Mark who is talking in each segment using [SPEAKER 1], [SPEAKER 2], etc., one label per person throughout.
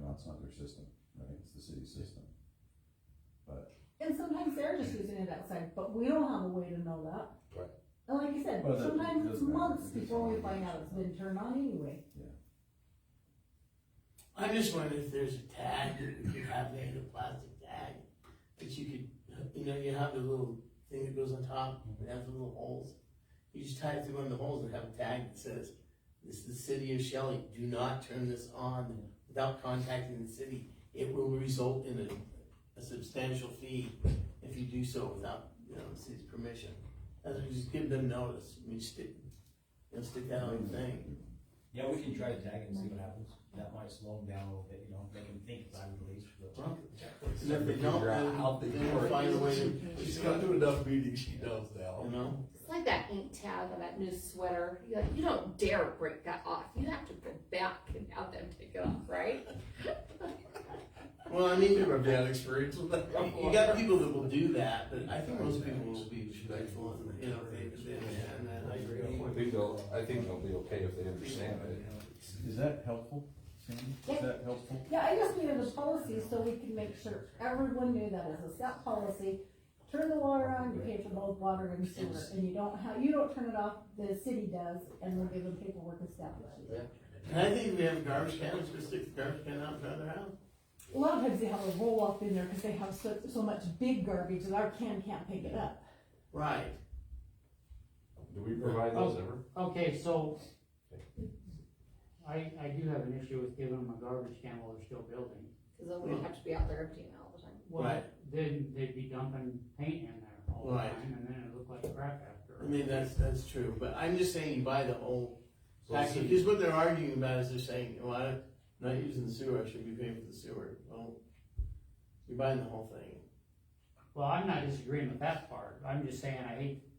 [SPEAKER 1] now it's not their system, right? It's the city's system. But,
[SPEAKER 2] And sometimes they're just using it outside, but we don't have a way to know that.
[SPEAKER 3] Right.
[SPEAKER 2] And like you said,
[SPEAKER 1] Well, that
[SPEAKER 2] sometimes it's
[SPEAKER 1] doesn't matter.
[SPEAKER 2] months before we find out it's been turned on anyway.
[SPEAKER 4] I just wonder if there's a tag that we could have made, a plastic tag, that you could, you know, you have the little thing that goes on top, and has the little holes. You just tie it through one of the holes and have a tag that says, this is the city of Shelley, do not turn this on without contacting the city. It will result in a, a substantial fee if you do so without, you know, the city's permission. As we just give them notice, we stick, you know, stick that on the thing.
[SPEAKER 3] Yeah, we can try to tag it and see what happens, that might slow them down a little bit, you know, make them think about it at least, but.
[SPEAKER 4] And if they don't, then, then we'll find a way to,
[SPEAKER 5] She's gone through enough meetings, she knows now.
[SPEAKER 4] you know?
[SPEAKER 6] It's like that ink tag on that new sweater. You, like, you don't dare break that off. You have to go back and have them take it off, right?
[SPEAKER 4] Well, I mean,
[SPEAKER 5] You
[SPEAKER 4] you
[SPEAKER 5] have bad experience with that.
[SPEAKER 4] you got people that will do that, but I think most people will be respectful and, you know, they, they, and then I agree.
[SPEAKER 7] I think they'll, I think they'll be okay if they understand it.
[SPEAKER 1] is that helpful, Sandy? Is
[SPEAKER 2] Yeah.
[SPEAKER 1] that helpful?
[SPEAKER 2] Yeah, I just needed a policy so we can make sure everyone knew that as a set policy. Turn the water on, you pay for both water and sewer, and you don't have, you don't turn it off, the city does, and we'll give them paperwork established.
[SPEAKER 4] And I think we have garbage cans, we stick the garbage can out in front of the house.
[SPEAKER 2] A lot of times they have a roll up in there because they have so, so much big garbage that our can can't pick it up.
[SPEAKER 4] Right.
[SPEAKER 7] Do we provide those ever?
[SPEAKER 8] Oh, Okay, so I, I do have an issue with giving them a garbage can while they're still building.
[SPEAKER 6] Because then we have to be out there emptying all the time.
[SPEAKER 8] Well,
[SPEAKER 4] Right.
[SPEAKER 8] then they'd be dumping paint in there all the
[SPEAKER 4] Right.
[SPEAKER 8] time and then it looked like crap
[SPEAKER 4] I
[SPEAKER 8] after.
[SPEAKER 4] mean, that's, that's true, but I'm just saying you buy the whole
[SPEAKER 7] So the
[SPEAKER 4] package,
[SPEAKER 7] city-
[SPEAKER 4] because what they're arguing about is they're saying, well, I'm not using the sewer, I should be paying for the sewer. Well, you're buying the whole thing.
[SPEAKER 8] Well, I'm not disagreeing with that part. I'm just saying I hate to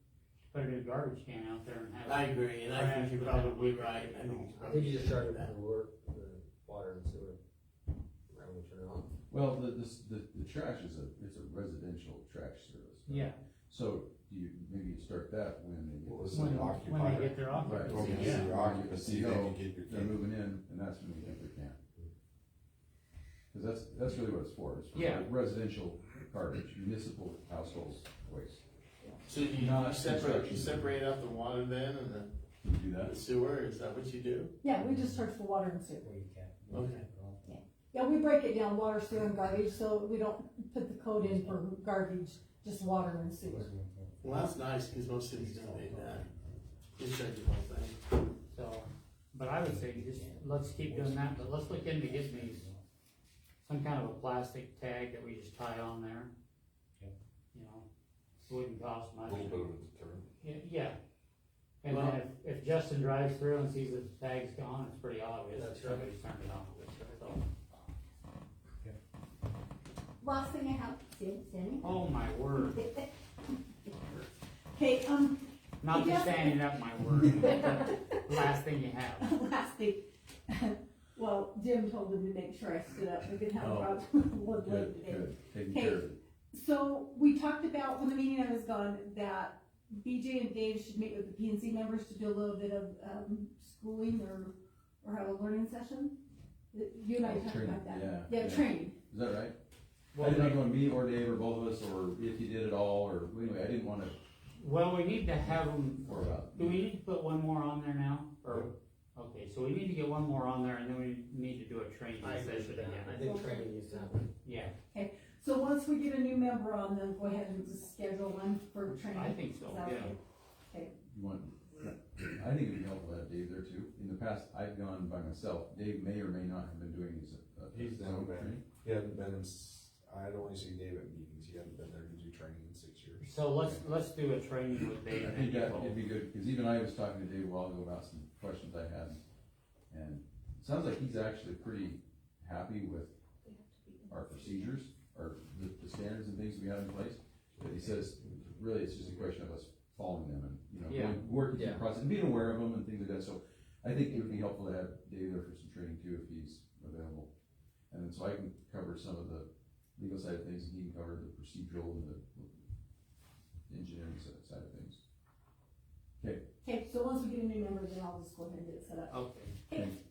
[SPEAKER 8] put a new garbage can out there and
[SPEAKER 4] I
[SPEAKER 8] have. it-
[SPEAKER 4] agree, and I think you're probably right, I think you're
[SPEAKER 9] I think you
[SPEAKER 4] probably
[SPEAKER 9] just started
[SPEAKER 4] right.
[SPEAKER 9] with the water, the water and sewer. Right when you turn it on.
[SPEAKER 1] Well, the, this, the, the trash is a, it's a residential trash service. right?
[SPEAKER 8] Yeah,
[SPEAKER 1] So do you, maybe you start that when they get.
[SPEAKER 7] Well, it's
[SPEAKER 8] when,
[SPEAKER 7] an
[SPEAKER 8] when they
[SPEAKER 7] occupier.
[SPEAKER 8] get their
[SPEAKER 1] Right,
[SPEAKER 8] occupancy.
[SPEAKER 1] when you
[SPEAKER 4] Yeah.
[SPEAKER 1] see your occupancy,
[SPEAKER 5] See, they
[SPEAKER 1] oh,
[SPEAKER 5] can get your
[SPEAKER 1] they're moving in, and that's when you think they can. Cause that's, that's really what it's for, it's
[SPEAKER 8] Yeah.
[SPEAKER 1] for residential garbage, municipal households waste.
[SPEAKER 4] So do you
[SPEAKER 1] No,
[SPEAKER 4] you
[SPEAKER 1] that's
[SPEAKER 4] separate, you
[SPEAKER 1] construction.
[SPEAKER 4] separate out the water then and the-
[SPEAKER 1] Can you do that?
[SPEAKER 4] the sewer, is that what you do?
[SPEAKER 2] Yeah, we just charge for water and sewer.
[SPEAKER 3] Well, you can't.
[SPEAKER 4] Okay.
[SPEAKER 2] Yeah, we break it down, water, sewer, and garbage, so we don't put the code in for garbage, just water and sewer.
[SPEAKER 4] Well, that's nice, because most cities don't do that. Just check the whole thing.
[SPEAKER 8] So, but I would say just, let's keep doing that, but let's look into getting these, some kind of a plastic tag that we just tie on there.
[SPEAKER 3] Yeah.
[SPEAKER 8] You know, it wouldn't cost
[SPEAKER 7] A
[SPEAKER 8] much.
[SPEAKER 7] little bit of a deterrent.
[SPEAKER 8] Yeah, Yeah. And then if, if Justin drives through and sees that the tag's gone, it's pretty obvious that
[SPEAKER 3] That's right.
[SPEAKER 8] somebody's turned it on. So,
[SPEAKER 2] Last thing I have, Sam- Sammy?
[SPEAKER 8] Oh, my word,
[SPEAKER 2] Okay, um,
[SPEAKER 8] not just standing up, my word, last thing you have.
[SPEAKER 2] last thing, well, Jim told me to make sure I stood up, we didn't have a
[SPEAKER 1] Oh.
[SPEAKER 2] problem with one leg
[SPEAKER 1] Good,
[SPEAKER 2] today.
[SPEAKER 1] good, taking care of it.
[SPEAKER 2] So we talked about when the meeting I was gone that BJ and Dave should meet with the P and Z members to do a little bit of um, schooling or or have a learning session. You and I
[SPEAKER 1] Oh,
[SPEAKER 2] talked
[SPEAKER 1] training,
[SPEAKER 2] about that.
[SPEAKER 1] yeah,
[SPEAKER 2] Yeah,
[SPEAKER 1] yeah.
[SPEAKER 2] training.
[SPEAKER 1] Is that right? I
[SPEAKER 8] Well,
[SPEAKER 1] didn't
[SPEAKER 8] we-
[SPEAKER 1] know if me or Dave or both of us, or if you did it all, or anyway, I didn't wanna,
[SPEAKER 8] Well, we need to have them
[SPEAKER 1] or about.
[SPEAKER 8] Do we need to put one more on there now, or, okay, so we need to get one more on there, and then we need to do a training
[SPEAKER 4] I agree with
[SPEAKER 8] session
[SPEAKER 4] that.
[SPEAKER 9] I
[SPEAKER 8] again.
[SPEAKER 9] think training needs to happen.
[SPEAKER 8] Yeah,
[SPEAKER 2] So once we get a new member on, then go ahead and just schedule one for training.
[SPEAKER 8] I think so,
[SPEAKER 2] Is that
[SPEAKER 8] yeah.
[SPEAKER 2] okay?
[SPEAKER 1] You want, I think it'd be helpful to have Dave there too. In the past, I've gone by myself. Dave may or may not have been doing his. uh,
[SPEAKER 7] He's
[SPEAKER 1] his
[SPEAKER 7] done
[SPEAKER 1] own
[SPEAKER 7] that.
[SPEAKER 1] training.
[SPEAKER 7] He hadn't been, in s- I'd only seen Dave at meetings, he hadn't been there to do training in six years.
[SPEAKER 8] So let's, let's do a training with Dave
[SPEAKER 1] I
[SPEAKER 8] and
[SPEAKER 1] think that,
[SPEAKER 8] Nicole.
[SPEAKER 1] it'd be good, cause even I was talking to Dave a while ago about some questions I had. And it sounds like he's actually pretty happy with
[SPEAKER 6] We have to be in
[SPEAKER 1] our procedures, or the, the standards and things we have in place. But he says, really, it's just a question of us following them and, you know,
[SPEAKER 8] Yeah.
[SPEAKER 1] going- working through the
[SPEAKER 9] Yeah.
[SPEAKER 1] process, being aware of them and things like that. So I think it would be helpful to have Dave there for some training too, if he's available. And then so I can cover some of the legal side of things, and he can cover the procedural and the engineering side side of things.
[SPEAKER 2] Okay, so once we get a new member, then I'll just go ahead and get it set up.
[SPEAKER 8] Okay,
[SPEAKER 2] Okay,
[SPEAKER 1] Thank-